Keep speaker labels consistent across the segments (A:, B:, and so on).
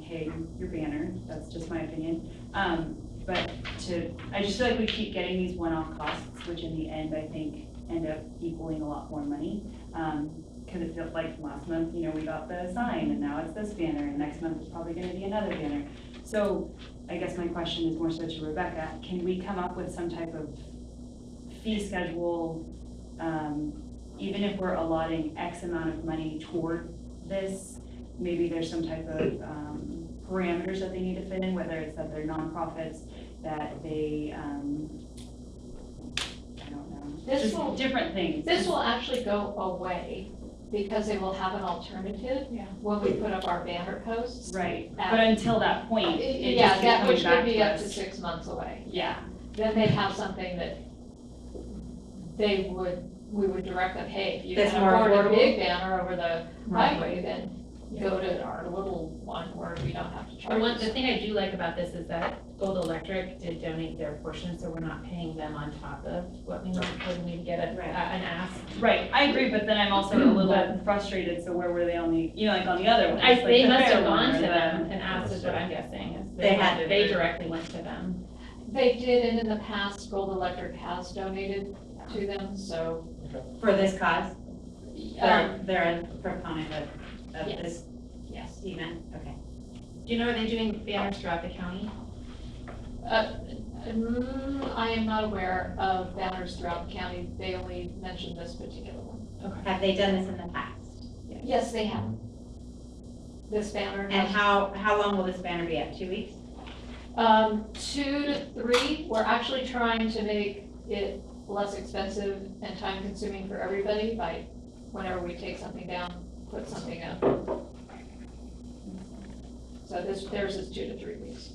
A: hey, your banner, that's just my opinion. Um, but to, I just feel like we keep getting these one-off costs, which in the end, I think, end up equaling a lot more money. Um, cause it felt like last month, you know, we got the sign and now it's this banner and next month it's probably gonna be another banner. So I guess my question is more so to Rebecca, can we come up with some type of fee schedule? Um, even if we're allotting X amount of money toward this, maybe there's some type of, um, parameters that they need to fit in, whether it's that they're nonprofits, that they, um, I don't know.
B: This
A: just
B: will-
A: Different things.
B: This will actually go away because they will have an alternative
C: Yeah.
B: when we put up our banner posts.
A: Right,
B: At-
A: but until that point, it
B: Yeah,
A: just keeps
B: that
A: coming
B: which
A: back
B: could
A: to
B: be up to
A: us.
B: six months away.
A: Yeah,
B: Then they'd have something that they would, we would direct them, hey, if you
D: That's
B: can
D: more
B: afford a
D: affordable?
B: big banner over the
D: Right.
B: highway, then go to our little one where we don't have to
C: And one, the
B: charge.
C: thing I do like about this is that Gold Electric did donate their portion, so we're not paying them on top of what we normally would get a- a-
D: Right.
C: an ask.
A: right, I agree, but then I'm also a little frustrated, so where were they on the, you know, like on the other one?
C: I,
A: like
C: they
A: the
C: must
A: fair
C: have
A: one
C: gone
A: or
C: to
A: the-
C: them and asked is what I'm guessing. is
D: They had to.
C: They directly went to them.
B: They did, and in the past, Gold Electric has donated to them, so.
D: For this cause,
B: um,
D: they're, they're a proponent of, of
C: Yes.
D: this
C: Yes.
D: event, okay.
C: Do you know, are they doing banners throughout the county?
B: Mm, I am not aware of banners throughout the county. They only mentioned this particular one.
D: Have they done this in the past?
B: Yes, they have. This banner.
D: And how, how long will this banner be up, two weeks?
B: Um, two to three, we're actually trying to make it less expensive and time consuming for everybody by whenever we take something down, put something up. So this, theirs is two to three weeks.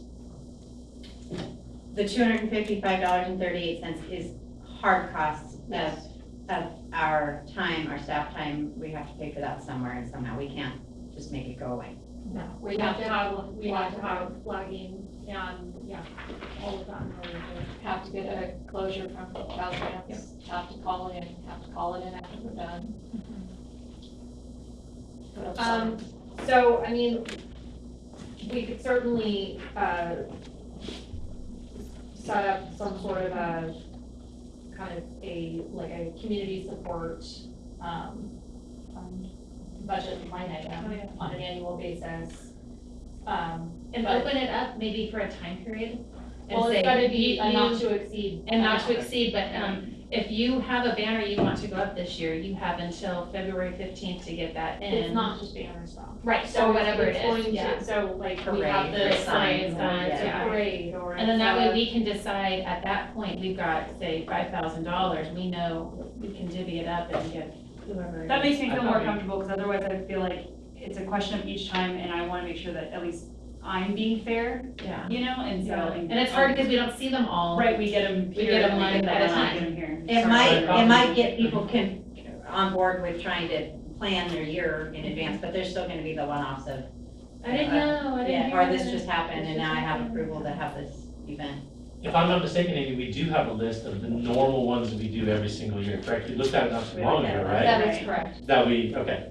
D: The two hundred and fifty-five dollars and thirty-eight cents is hard costs of,
B: Yes.
D: of our time, our staff time, we have to pay for that somewhere and somehow we can't just make it go away.
C: No.
B: We have to
E: have, we have to have logging and, yeah, all of that. in order to-
B: have to get a closure from Caltrans, have to call in, have to call it in after we're done. Put up
E: Um,
B: signs.
E: So, I mean, we could certainly, uh, set up some sort of a, kind of a, like a community support, um, fund, budget line
C: Oh, yeah.
E: item on an annual basis. Um,
C: And
E: But-
C: open it up maybe for a time period and
E: well,
C: say,
E: it's gotta be
C: you,
E: a not
C: you-
E: to exceed.
C: And not to exceed, but, um, if you have a banner you want to go up this year, you have until February fifteenth to get that in.
E: It's not just banners though.
C: Right,
E: So
C: so whatever
E: it's
C: it
E: going
C: is, yeah.
E: to, so like we
D: Parade
E: have
D: or
E: the
D: signs
E: signs,
D: or-
E: uh, it's
C: yeah.
E: a parade or.
C: And then that way
E: it's
C: we can decide, at that point, we've got, say, five thousand dollars, we know we can divvy it up and get whoever.
A: That makes me feel more
C: Okay.
A: comfortable, because otherwise I feel like it's a question of each time, and I want to make sure that at least I'm being fair,
C: Yeah,
A: you know, and so. um,
C: and it's hard because we don't see them all.
A: Right, we get them
C: We
A: here,
C: get 'em
A: and we
C: one
A: get them
C: at
A: there,
C: a
A: and we
C: time.
A: get them here.
D: It
C: Sorry,
D: might,
C: but-
D: it might get people can, on board with trying to plan their year in advance, but there's still gonna be the one-offs of,
C: I didn't know, Oh, I didn't
D: yeah,
C: hear.
D: or this
C: that.
D: just happened and
C: This
D: now I
C: just
D: have
C: happened.
D: approval to have this event.
F: If I'm not mistaken, Amy, we do have a list of the normal ones that we do every single year, correct? You looked at it not too long ago, right?
B: That
A: right.
B: is correct.
F: That we, okay,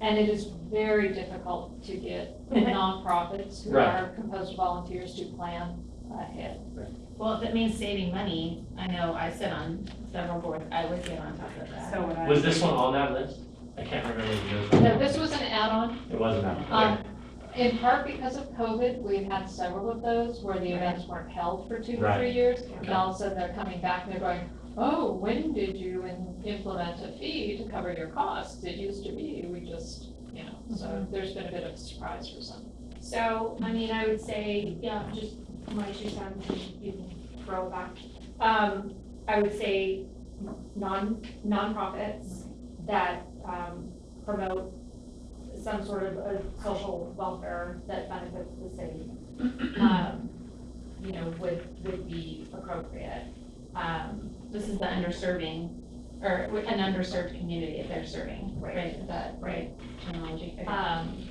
B: And it is very difficult to get nonprofits who
F: Right.
B: are composed of volunteers to plan ahead.
C: Well, if it means saving money, I know I sit on several boards, I would get on top of that.
A: So would I.
F: was this one on that list? I can't remember if it was.
B: Now, this was an add-on,
F: It wasn't that one, okay.
B: um, in part because of COVID, we've had several of those where the events weren't held for two or three
F: Right.
B: years. And all of a sudden they're coming back and they're going, oh, when did you in- implement a fee to cover your costs? It used to be, we just, you know, so there's been a bit of a surprise for some.
E: So, I mean, I would say, yeah, just my two cents, and you can throw it back. Um, I would say non, nonprofits that, um, promote some sort of a social welfare that benefits the city. um, You know, would, would be appropriate. Um,
C: This is the underserving, or an underserved community if they're serving,
E: Right.
C: right, is that, right, terminology? Okay.
E: um,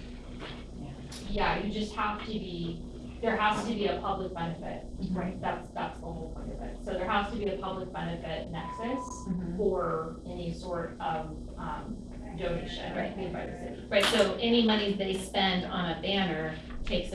E: yeah, you just have to be, there has to be a public benefit Right, that's, that's the whole point of it. So there has to be a public benefit nexus
C: Mhm.
E: for any sort of, um, donation
C: Right.
E: made by the city.
C: Right, so any money they spend on a banner takes